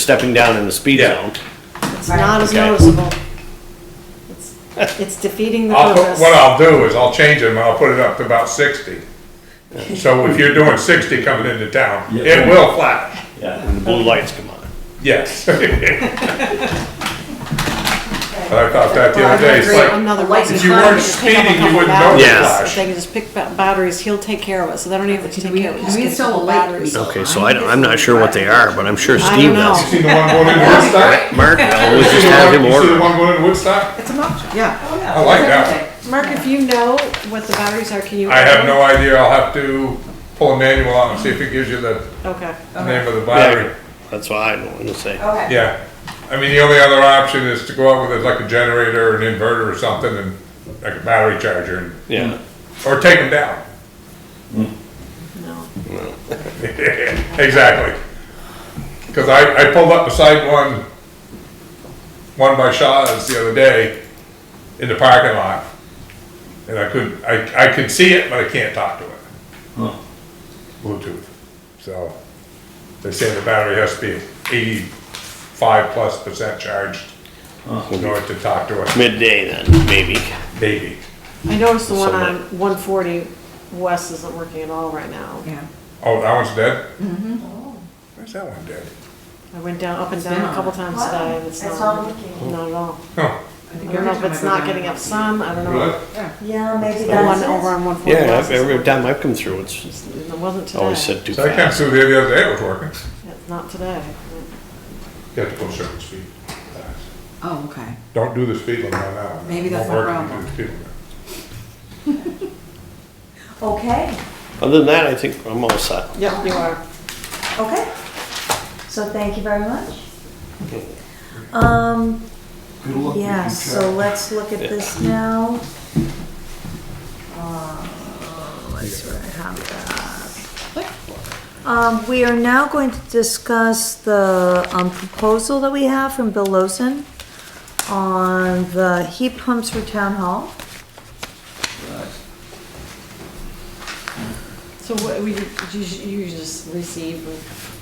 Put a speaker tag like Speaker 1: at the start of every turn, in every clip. Speaker 1: stepping down in the speed
Speaker 2: Yeah.
Speaker 1: zone.
Speaker 3: It's not as
Speaker 1: Okay.
Speaker 3: noticeable. It's- It's defeating the
Speaker 2: I'll put,
Speaker 3: purpose.
Speaker 2: what I'll do is I'll change them and I'll put it up to about sixty. So if you're doing sixty coming into town, it will flash,
Speaker 1: And the blue lights come on.
Speaker 2: yes. I thought that the other day, it's
Speaker 3: Well, I agree.
Speaker 2: like,
Speaker 3: Another way to
Speaker 2: if you
Speaker 3: find it,
Speaker 2: weren't
Speaker 3: just pick up a
Speaker 2: speeding, you
Speaker 3: couple
Speaker 2: wouldn't
Speaker 1: notice.
Speaker 3: batteries.
Speaker 2: Yeah.
Speaker 3: If They can just pick up batteries, he'll take care of it, so they don't even have to
Speaker 4: Can
Speaker 3: take
Speaker 4: we-
Speaker 3: care of it.
Speaker 4: can
Speaker 3: just
Speaker 4: we
Speaker 3: get a
Speaker 4: install a
Speaker 3: couple
Speaker 4: light?
Speaker 3: batteries.
Speaker 1: Okay, so I don't, I'm not sure what they are, but I'm sure
Speaker 3: I
Speaker 1: Steve
Speaker 3: don't know.
Speaker 1: knows.
Speaker 2: see the one going in Woodstock?
Speaker 1: Mark, I always
Speaker 2: You
Speaker 1: just
Speaker 2: see
Speaker 1: have
Speaker 2: the
Speaker 1: him
Speaker 2: one- you see the
Speaker 1: order.
Speaker 2: one going in Woodstock?
Speaker 4: It's an option.
Speaker 3: Yeah.
Speaker 2: I like that.
Speaker 3: Mark, if you know what the batteries are, can you?
Speaker 2: I have no idea, I'll have to pull a manual out and see if it gives you the
Speaker 3: Okay.
Speaker 2: name of the battery.
Speaker 1: Yeah, That's what I want to say.
Speaker 5: Okay.
Speaker 2: Yeah, I mean, the only other option is to go out with like a generator or an inverter or something and like a battery charger and,
Speaker 1: Yeah,
Speaker 2: or take them down.
Speaker 3: No.
Speaker 2: Exactly. Cause I, I pulled up beside one, one by Shaw's the other day in the parking lot. And I couldn't, I, I could see it, but I can't talk to it. Bluetooth. So they say the battery has to be eighty-five plus percent charged in order to talk to it,
Speaker 1: midday then, maybe.
Speaker 2: maybe.
Speaker 3: I noticed the one
Speaker 1: Somewhat.
Speaker 3: on one forty west isn't working at all right now.
Speaker 4: Yeah.
Speaker 2: Oh, that one's dead? Mm-hmm. Where's that one dead?
Speaker 3: I went down, up and
Speaker 4: been
Speaker 3: down a
Speaker 4: on.
Speaker 3: couple times today, and it's
Speaker 5: It's
Speaker 3: not,
Speaker 5: not working.
Speaker 3: not at all.
Speaker 2: Huh,
Speaker 4: I
Speaker 3: I
Speaker 4: think
Speaker 3: don't
Speaker 4: every
Speaker 3: know if
Speaker 4: time I
Speaker 3: it's
Speaker 4: go
Speaker 3: not
Speaker 4: down-
Speaker 3: getting up sun, I don't know.
Speaker 2: really?
Speaker 5: Yeah, maybe
Speaker 3: The one
Speaker 5: that's
Speaker 3: over
Speaker 5: it.
Speaker 3: on one forty
Speaker 1: Yeah,
Speaker 3: west.
Speaker 1: every
Speaker 3: is-
Speaker 1: time I've come through, it's
Speaker 3: It wasn't
Speaker 2: Oh,
Speaker 3: today.
Speaker 1: always said too
Speaker 2: So I came
Speaker 1: fast.
Speaker 2: through there the other day, it was working.
Speaker 3: It's Not today.
Speaker 2: You have to go a certain speed.
Speaker 4: Oh, okay.
Speaker 2: Don't do the speed limit on that one.
Speaker 4: Maybe that's
Speaker 2: Won't
Speaker 4: my
Speaker 2: work if you do
Speaker 4: problem.
Speaker 2: the speed limit.
Speaker 5: Okay,
Speaker 1: Other than that, I think I'm all set.
Speaker 3: Yep, you are.
Speaker 5: okay. So thank you very much. Um, yeah, so let's look at this now. Uh, Let's sort of have that. Um, we are now going to discuss the, um, proposal that we have from Bill Lawson on the heat pumps for town hall.
Speaker 3: So what, we, you, you just receive and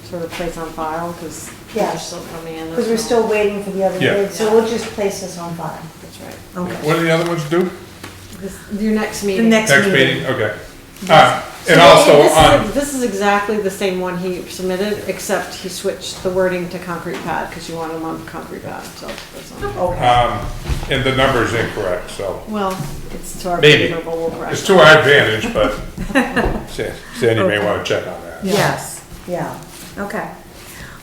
Speaker 3: sort of place on file, because
Speaker 5: Yeah.
Speaker 3: they're still coming in.
Speaker 5: Because we're still waiting for the other
Speaker 2: Yeah.
Speaker 5: bid, so we'll just place this on file.
Speaker 3: That's right.
Speaker 5: Okay.
Speaker 2: What do the other ones do?
Speaker 3: This, your next
Speaker 5: The
Speaker 3: meeting.
Speaker 5: next
Speaker 2: Next
Speaker 5: meeting.
Speaker 2: meeting, okay. Ah,
Speaker 3: So
Speaker 2: and also
Speaker 3: this is-
Speaker 2: on,
Speaker 3: This is exactly the same one he submitted, except he switched the wording to concrete pad, because you want him on concrete pad, so that's on.
Speaker 5: Okay,
Speaker 2: um, and the number's incorrect, so
Speaker 3: Well, it's to our
Speaker 2: Maybe.
Speaker 3: favor, but we'll correct
Speaker 2: it's
Speaker 3: it.
Speaker 2: to our advantage, but Sa- Sandy may wanna check on that.
Speaker 5: yes, yeah, okay.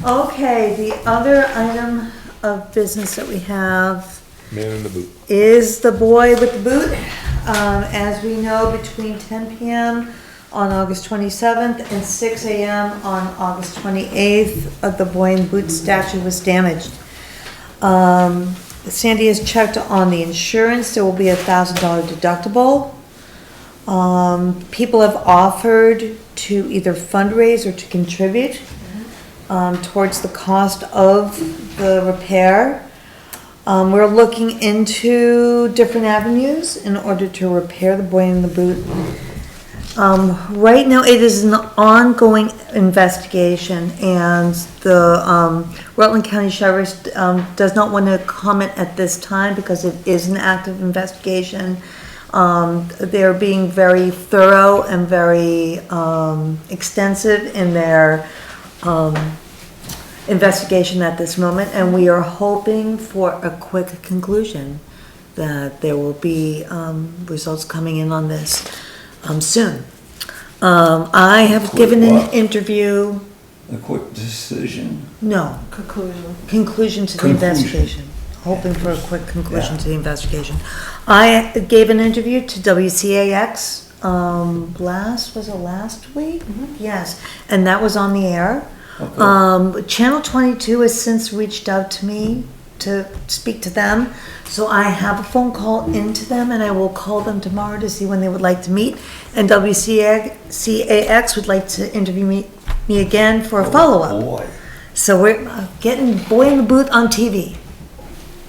Speaker 5: Okay, the other item of business that we have
Speaker 2: Man in the boot.
Speaker 5: is the boy with the boot. Um, as we know, between ten PM on August twenty-seventh and six AM on August twenty-eighth, uh, the boy in boot statue was damaged. Um, Sandy has checked on the insurance, there will be a thousand dollar deductible. Um, people have offered to either fundraise or to contribute, um, towards the cost of the repair. Um, we're looking into different avenues in order to repair the boy in the boot. Um, right now, it is an ongoing investigation, and the, um, Rutland County Sheriff's, um, does not want to comment at this time because it is an active investigation. Um, they're being very thorough and very, um, extensive in their, um, investigation at this moment, and we are hoping for a quick conclusion, that there will be um, results coming in on this um, soon. Um, I have given an
Speaker 6: what?
Speaker 5: interview,
Speaker 6: a quick decision.
Speaker 5: no,
Speaker 3: Conclusion.
Speaker 5: conclusion to the
Speaker 6: Conclusion.
Speaker 5: investigation, hoping for a quick conclusion to the investigation. I gave an interview to WCAX um, last, was it last week?
Speaker 6: Mm-hmm.
Speaker 5: Yes, and that was on the air.
Speaker 6: Okay.
Speaker 5: Um, Channel 22 has since reached out to me to speak to them. So I have a phone call into them and I will call them tomorrow to see when they would like to meet. And WCAX would like to interview me, me again for a follow-up.
Speaker 6: Boy,
Speaker 5: So we're uh, getting Boy in the Booth on TV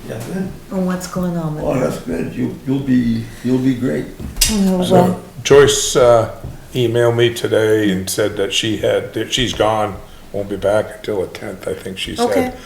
Speaker 6: yeah, good.
Speaker 5: on what's going on
Speaker 6: Well,
Speaker 5: with
Speaker 6: that's good. You, you'll be, you'll be great.
Speaker 5: it.
Speaker 2: So Joyce, uh, emailed me today and said that she had, that she's gone, won't be back until the tenth, I think she said.
Speaker 5: Okay.